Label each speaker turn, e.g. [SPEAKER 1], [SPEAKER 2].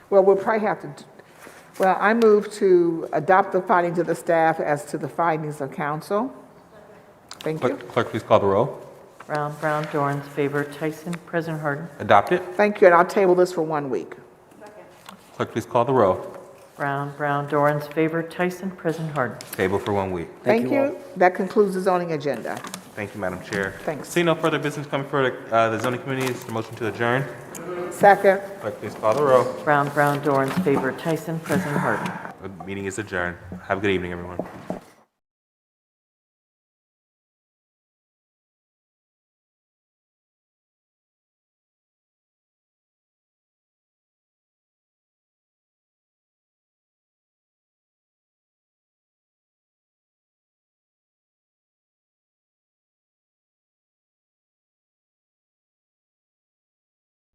[SPEAKER 1] Well, we'll probably have to, d- well, I move to adopt the findings of the staff as to the findings of council. Thank you.
[SPEAKER 2] Clerk, clerk, please call the roll.
[SPEAKER 3] Brown, Brown, Dorans, favor, Tyson, President Harden.
[SPEAKER 2] Adopt it.
[SPEAKER 1] Thank you, and I'll table this for one week.
[SPEAKER 2] Clerk, please call the roll.
[SPEAKER 3] Brown, Brown, Dorans, favor, Tyson, President Harden.
[SPEAKER 2] Table for one week.
[SPEAKER 1] Thank you. That concludes the zoning agenda.
[SPEAKER 2] Thank you, Madam Chair.
[SPEAKER 1] Thanks.
[SPEAKER 2] See no further business coming for uh, the zoning committee. Is the motion to adjourn?
[SPEAKER 1] Second.
[SPEAKER 2] Clerk, please call the roll.
[SPEAKER 3] Brown, Brown, Dorans, favor, Tyson, President Harden.
[SPEAKER 2] The meeting is adjourned. Have a good evening, everyone.